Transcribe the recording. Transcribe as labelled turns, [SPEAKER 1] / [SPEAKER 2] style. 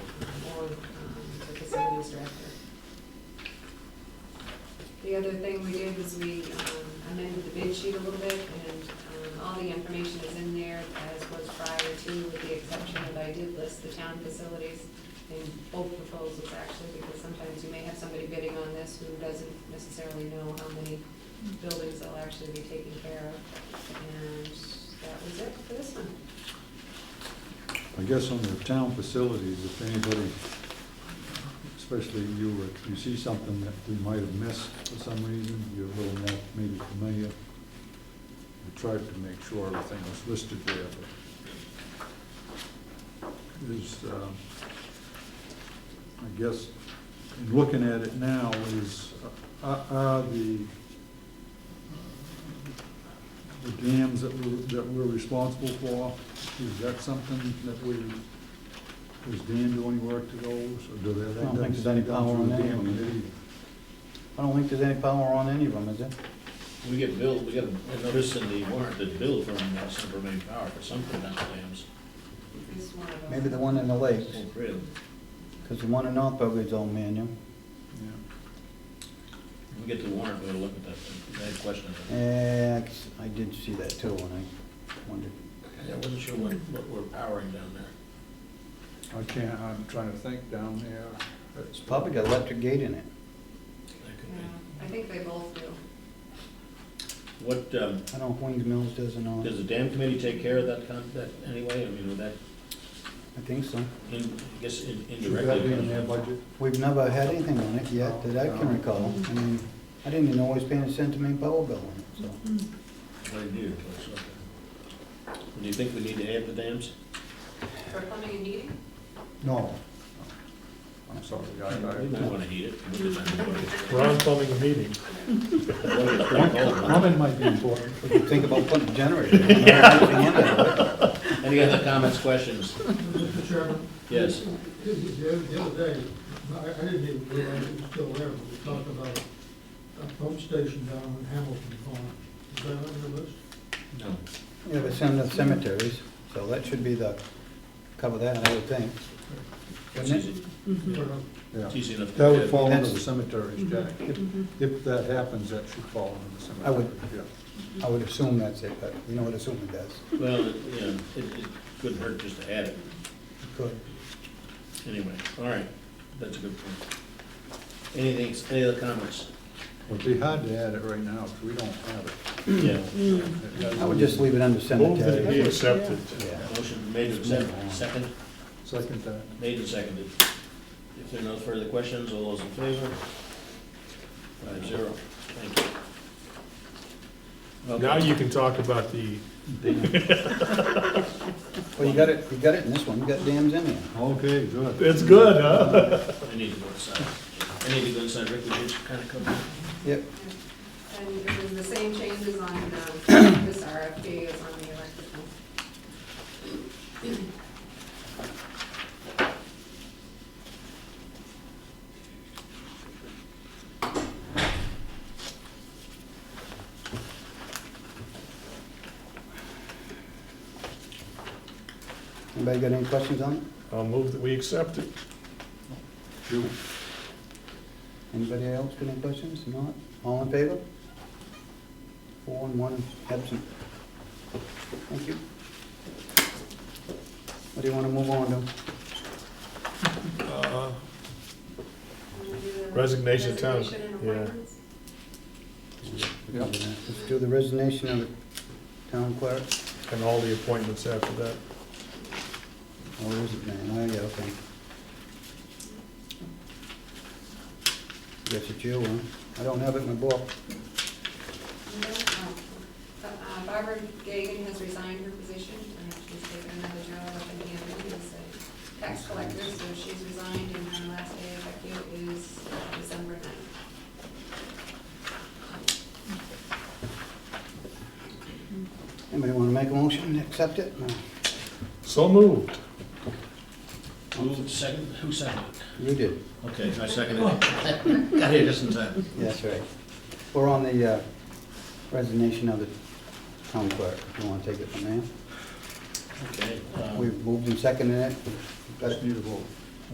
[SPEAKER 1] finance director. The other thing we did was we um, amended the bid sheet a little bit, and um, all the information is in there as was prior to, with the exception of I did list the town facilities in both proposals actually, because sometimes you may have somebody bidding on this who doesn't necessarily know how many buildings they'll actually be taking care of. And that was it for this one.
[SPEAKER 2] I guess on the town facilities, if anybody, especially you, if you see something that we might have missed for some reason, you're a little more maybe familiar. We tried to make sure everything was listed there, but is, um, I guess, in looking at it now, is, are are the, the dams that we're, that we're responsible for, is that something that we, is Dan doing work to those, or do they?
[SPEAKER 3] I don't think there's any power on any of them. I don't think there's any power on any of them, is there?
[SPEAKER 4] We get billed, we got a notice in the warrant that billed from uh, Central Maine Power for some prevent dams.
[SPEAKER 1] This is one of them.
[SPEAKER 3] Maybe the one in the lakes,
[SPEAKER 4] Oh, really?
[SPEAKER 3] because the one in North Belgrade's all manual.
[SPEAKER 4] We get the warrant, we'll look at that, I had a question.
[SPEAKER 3] Eh, I did see that too, and I wondered.
[SPEAKER 4] I wasn't sure what, what we're powering down there.
[SPEAKER 2] I can't, I'm trying to think down there. It's
[SPEAKER 3] Probably got electric gate in it.
[SPEAKER 4] That could
[SPEAKER 1] Yeah,
[SPEAKER 4] be.
[SPEAKER 1] I think they both do.
[SPEAKER 4] What, um,
[SPEAKER 3] I don't know if Wings Mills does or not.
[SPEAKER 4] does the dam committee take care of that con, that anyway? I mean, would that,
[SPEAKER 3] I think so.
[SPEAKER 4] in, I guess in-
[SPEAKER 2] Should that
[SPEAKER 4] indirectly.
[SPEAKER 2] be in their budget?
[SPEAKER 3] We've never had anything on it yet that I can recall. I mean, I didn't even know it was paying a cent to make power bill on it, so.
[SPEAKER 4] They do, but it's okay. Do you think we need to add the dams?
[SPEAKER 1] For plumbing and heating?
[SPEAKER 2] No. I'm sorry, I,
[SPEAKER 4] We might
[SPEAKER 2] I,
[SPEAKER 4] wanna heat it. We'll just-
[SPEAKER 5] We're on plumbing a meeting.
[SPEAKER 4] It's pretty cold, huh?
[SPEAKER 2] comment might be important.
[SPEAKER 3] We could think about putting a generator in. I don't know if we can do it.
[SPEAKER 4] Any other comments, questions?
[SPEAKER 6] Mr. Chairman,
[SPEAKER 4] Yes.
[SPEAKER 6] the the other day, I I didn't even realize it was still there, but we talked about a pump station down in Hamilton Pond. Is that on your list?
[SPEAKER 4] No.
[SPEAKER 3] Yeah, but it's in the cemeteries, so that should be the, cover that, I would think.
[SPEAKER 4] It's
[SPEAKER 3] Wouldn't it?
[SPEAKER 4] easy,
[SPEAKER 6] Or, uh,
[SPEAKER 2] Yeah.
[SPEAKER 4] it's easy enough. to
[SPEAKER 2] That
[SPEAKER 4] do.
[SPEAKER 2] would fall under
[SPEAKER 3] That's- Mhm.
[SPEAKER 2] the cemeteries, Jack. If,
[SPEAKER 1] Mm-hmm.
[SPEAKER 2] if that happens, that should fall under the
[SPEAKER 3] I would-
[SPEAKER 2] cemeteries, yeah.
[SPEAKER 3] I would assume that's it, but you know what assuming does.
[SPEAKER 4] Well, it- you know, it, it couldn't hurt just to add it,
[SPEAKER 3] Good.
[SPEAKER 4] anyway, all right, that's a good point. Anything, any other comments?
[SPEAKER 2] Would be hard to add it right now, because we don't have it.
[SPEAKER 4] Yeah.
[SPEAKER 3] Mm. I would just leave it under
[SPEAKER 5] Move that it be
[SPEAKER 3] cemetery.
[SPEAKER 5] accepted.
[SPEAKER 3] Yeah.
[SPEAKER 4] Motion made and seconded, second,
[SPEAKER 2] Second that.
[SPEAKER 4] made and seconded. If there are no further questions, all those in favor? Five zero, thank you. Okay.
[SPEAKER 5] Now you can talk about the,
[SPEAKER 3] Well, you got it, you got it in this one, you got dams in there.
[SPEAKER 2] Okay, good.
[SPEAKER 5] it's good, huh?
[SPEAKER 4] I need to go inside, I need to go inside, Rick, would you just kind of come?
[SPEAKER 3] Yep,
[SPEAKER 1] And it was the same changes on um, this RFP as on the electrical.
[SPEAKER 3] anybody got any questions on it?
[SPEAKER 5] I'll uh, move that we accept it.
[SPEAKER 2] You,
[SPEAKER 3] Anybody else got any questions? Not? All in favor? Four and one absent. Thank you. What do you want to move on to?
[SPEAKER 5] Uh,
[SPEAKER 1] Wanna do the
[SPEAKER 5] Resignation of town-
[SPEAKER 1] Resignation and
[SPEAKER 5] yeah.
[SPEAKER 1] appointments?
[SPEAKER 2] yeah.
[SPEAKER 3] Let's do the resignation of the town clerk.
[SPEAKER 5] And all the appointments after that.
[SPEAKER 3] Oh, is it, man? Oh, yeah, okay. Guess it's you, huh? I don't have it in my book.
[SPEAKER 1] No, um, uh, Barbara Gagan has resigned her position, and she's taken another job up in Hampton as a tax collector, so she's resigned, and her last day effective is uh, December ninth.
[SPEAKER 3] Anybody want to make a motion and accept it? No.
[SPEAKER 5] So moved.
[SPEAKER 4] Who second, who seconded?
[SPEAKER 3] You did.
[SPEAKER 4] Okay, I seconded it. Got here just in time.
[SPEAKER 3] That's right. We're on the uh, resignation of the town clerk, if you want to take it from there.
[SPEAKER 4] Okay, um,
[SPEAKER 3] Oh. We've moved and seconded it. Got
[SPEAKER 2] Just
[SPEAKER 3] it.
[SPEAKER 2] need a vote.